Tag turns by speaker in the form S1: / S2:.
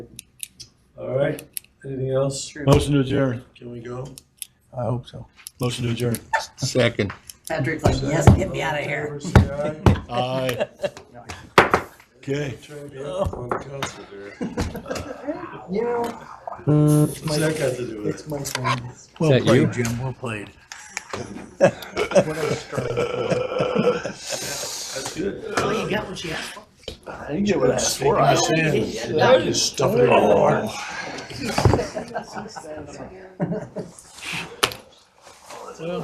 S1: All right, anything else?
S2: Motion to adjourn.
S1: Can we go?
S3: I hope so.
S2: Motion to adjourn.
S4: Second.
S5: Patrick's like, yes, get me out of here.
S1: All in favor, say aye.
S2: Aye. Okay.
S1: Trying to be on council here.
S3: You know,
S1: What's that got to do with
S3: it's my turn.
S4: Well that played,
S3: Jim. Well played.
S1: it? That's good.
S5: Oh, you got what you asked for.
S3: I didn't get what I asked for.
S1: I understand. I was just stuffing it in my heart.